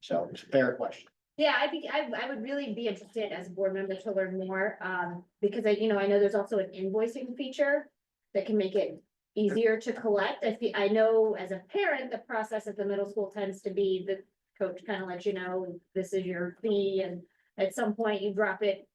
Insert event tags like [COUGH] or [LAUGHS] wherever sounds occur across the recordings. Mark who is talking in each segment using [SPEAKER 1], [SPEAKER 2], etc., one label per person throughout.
[SPEAKER 1] So it's a fair question.
[SPEAKER 2] Yeah, I think I, I would really be interested as a board member to learn more, um, because I, you know, I know there's also an invoicing feature that can make it easier to collect. I feel, I know as a parent, the process at the middle school tends to be the coach kind of lets you know, this is your fee, and at some point you drop it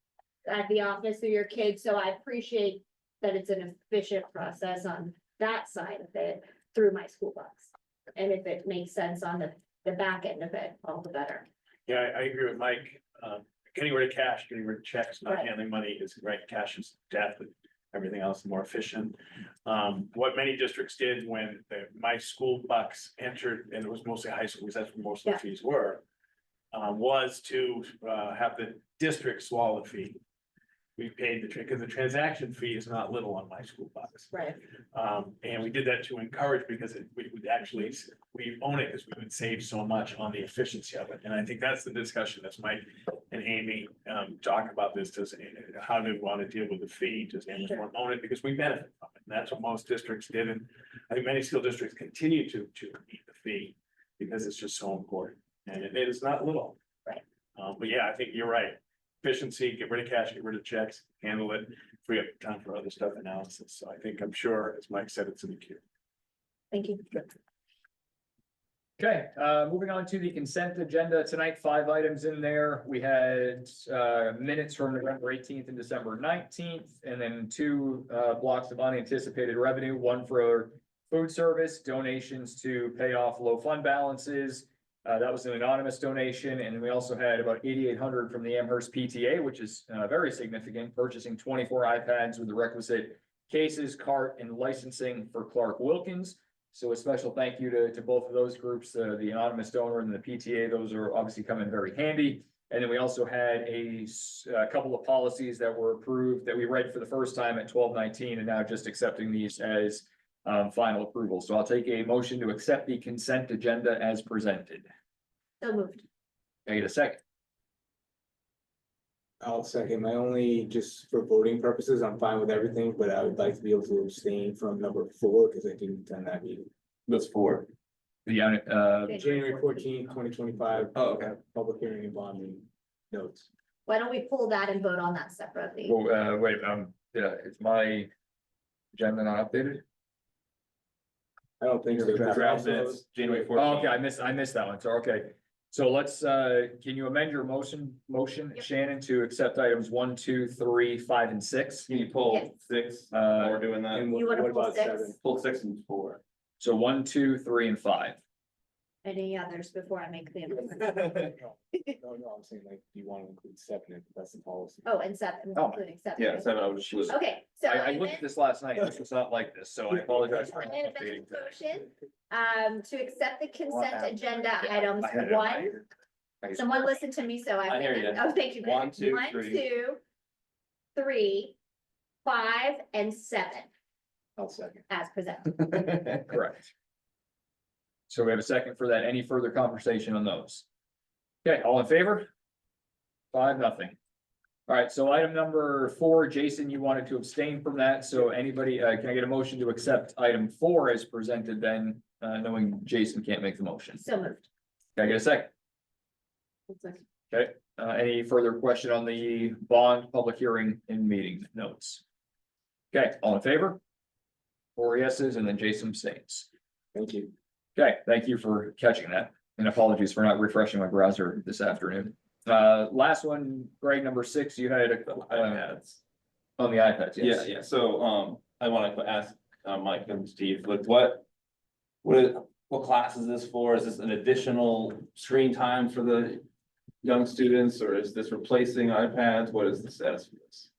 [SPEAKER 2] at the office of your kid, so I appreciate that it's an efficient process on that side of it through my school box. And if it makes sense on the, the back end of it, all the better.
[SPEAKER 3] Yeah, I, I agree with Mike. Um, getting rid of cash, getting rid of checks, not
[SPEAKER 2] Right.
[SPEAKER 3] handling money is right. Cash is death. and Everything else is more efficient. Um, what many districts did when the, my school bucks entered, and it was mostly high school, because that's where most of
[SPEAKER 2] Yeah.
[SPEAKER 3] the fees were. Uh, was to, uh, have the district swallow the fee. We paid the, because the transaction fee is not little on my school bucks.
[SPEAKER 2] Right,
[SPEAKER 3] Um, and we did that to encourage because it, we would actually, we own it because we would save so much on the efficiency of it. And I think that's the discussion that's Mike and Amy, um, talk about this, does, uh, how do we want to deal with the fee? Does anyone own it? Because we benefit from it. And that's what most districts did. And I think many school districts continue to, to meet the fee because it's just so important. And it it is not little.
[SPEAKER 2] Right.
[SPEAKER 3] Um, but yeah, I think you're right. Efficiency, get rid of cash, get rid of checks, handle it free up time for other stuff analysis. So I think I'm sure, as Mike said, it's in the queue.
[SPEAKER 2] thank you.
[SPEAKER 4] Okay, uh, moving on to the consent agenda tonight, five items in there. We had, uh, minutes from November eighteenth and December nineteenth. And then two, uh, blocks of unanticipated revenue, one for food service donations to pay off low fund balances. Uh, that was an anonymous donation. And then we also had about eighty-eight hundred from the Amherst PTA, which is, uh, very significant, purchasing twenty-four iPads with the requisite cases, cart, and licensing for Clark Wilkins. So a special thank you to, to both of those groups, uh, the anonymous donor and the PTA, those are obviously coming very handy. And then we also had a, s- a couple of policies that were approved that we read for the first time at twelve nineteen and now just accepting these as um, final approval. So I'll take a motion to accept the consent agenda as presented.
[SPEAKER 2] So moved.
[SPEAKER 4] Can I get a second.
[SPEAKER 5] I'll second. My only, just for voting purposes, I'm fine with everything, but I would like to be able to abstain from number four because I didn't attend that meeting.
[SPEAKER 4] That's four. Yeah, uh,
[SPEAKER 5] January 14, 2025.
[SPEAKER 4] Oh, okay.
[SPEAKER 5] Public hearing and bonding notes.
[SPEAKER 2] Why don't we pull that and vote on that separately?
[SPEAKER 4] well, uh, wait, um, yeah, is my agenda not updated?
[SPEAKER 5] I don't think. so.
[SPEAKER 4] The draft minutes,
[SPEAKER 5] January
[SPEAKER 4] Oh, Okay, I missed, I missed that one, so, okay. So let's, uh, can you amend your motion, motion,
[SPEAKER 2] Yep.
[SPEAKER 4] Shannon, to accept items one, two, three, five, and six?
[SPEAKER 6] Can you
[SPEAKER 2] Yes.
[SPEAKER 6] pull six while
[SPEAKER 4] Uh,
[SPEAKER 6] we're doing that?
[SPEAKER 5] And
[SPEAKER 2] You
[SPEAKER 5] what
[SPEAKER 2] wanna
[SPEAKER 5] what
[SPEAKER 2] pull
[SPEAKER 5] about
[SPEAKER 2] six?
[SPEAKER 5] seven?
[SPEAKER 6] Pull six and
[SPEAKER 3] [LAUGHS]
[SPEAKER 6] four.
[SPEAKER 4] so one, two, three, and five.
[SPEAKER 2] Any others before I make the amendment?
[SPEAKER 5] No, no, no, I'm saying like, do you want to include seven if that's the policy?
[SPEAKER 2] Oh, and seven,
[SPEAKER 4] Oh.
[SPEAKER 2] including seven.
[SPEAKER 6] Yeah,
[SPEAKER 2] right?
[SPEAKER 6] seven, I was just.
[SPEAKER 2] Okay, so
[SPEAKER 4] I, I
[SPEAKER 2] I
[SPEAKER 4] looked at
[SPEAKER 2] amend,
[SPEAKER 4] this last night, this was not like this, so I apologize.
[SPEAKER 2] [LAUGHS]
[SPEAKER 4] for
[SPEAKER 2] I amend
[SPEAKER 4] updating
[SPEAKER 2] the
[SPEAKER 4] that.
[SPEAKER 2] motion, um, to accept the consent
[SPEAKER 6] Wow.
[SPEAKER 2] agenda items
[SPEAKER 4] I had it in my
[SPEAKER 2] one.
[SPEAKER 4] ear. I guess-
[SPEAKER 2] Someone listen to me, so I.
[SPEAKER 6] I hear you.
[SPEAKER 2] Oh, thank you. Greg.
[SPEAKER 6] One, two,
[SPEAKER 2] One,
[SPEAKER 6] three.
[SPEAKER 2] two, three, five, and seven
[SPEAKER 5] I'll second.
[SPEAKER 2] as presented.
[SPEAKER 4] Correct. So we have a second for that. Any further conversation on those? Okay, all in favor? Five, nothing. All right, so item number four, Jason, you wanted to abstain from that. So anybody, uh, can I get a motion to accept item four as presented then, uh, knowing Jason can't make the motion?
[SPEAKER 2] So moved.
[SPEAKER 4] Can I get a second? Uh, any further question on the bond public hearing and meeting notes? Okay, all in favor? Four yeses and then Jason abstains.
[SPEAKER 5] Thank you.
[SPEAKER 4] Okay, thank you for catching that, and apologies for not refreshing my browser this afternoon. Uh, last one, Greg, number six, you had a, uh,
[SPEAKER 6] iPads.
[SPEAKER 4] on the iPads,
[SPEAKER 6] Yeah,
[SPEAKER 4] yes.
[SPEAKER 6] yeah, so, um, I wanna ask, uh, Mike and Steve, like, what? What, is- what class is this for? Is this an additional screen time for the young students, or is this replacing iPads? What is the status for this?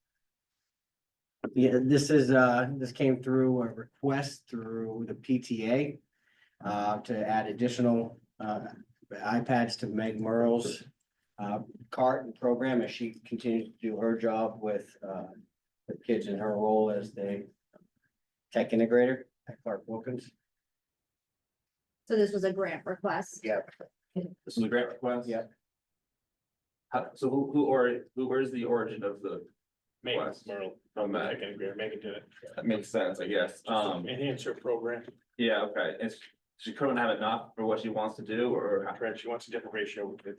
[SPEAKER 7] Yeah, this is, uh, this came through a request through the PTA uh, to add additional, uh, iPads to Meg Merle's uh, cart and program as she continues to do her job with, uh, the kids in her role as the tech integrator at Clark Wilkins.
[SPEAKER 2] So this was a grant request.
[SPEAKER 6] This is a grant request?
[SPEAKER 7] Yeah.
[SPEAKER 6] How, so who, who, or, who, where's the origin of the,
[SPEAKER 3] Megan,
[SPEAKER 6] Wes.
[SPEAKER 3] Merle,
[SPEAKER 6] from
[SPEAKER 3] I
[SPEAKER 6] that?
[SPEAKER 3] can agree, Megan did it.
[SPEAKER 6] That makes sense, I guess.
[SPEAKER 3] Just to
[SPEAKER 6] Um,
[SPEAKER 3] Enhance your program.
[SPEAKER 6] yeah, okay, it's, She couldn't have enough for what she wants to do, or?
[SPEAKER 3] Correct, she wants a different ratio, it's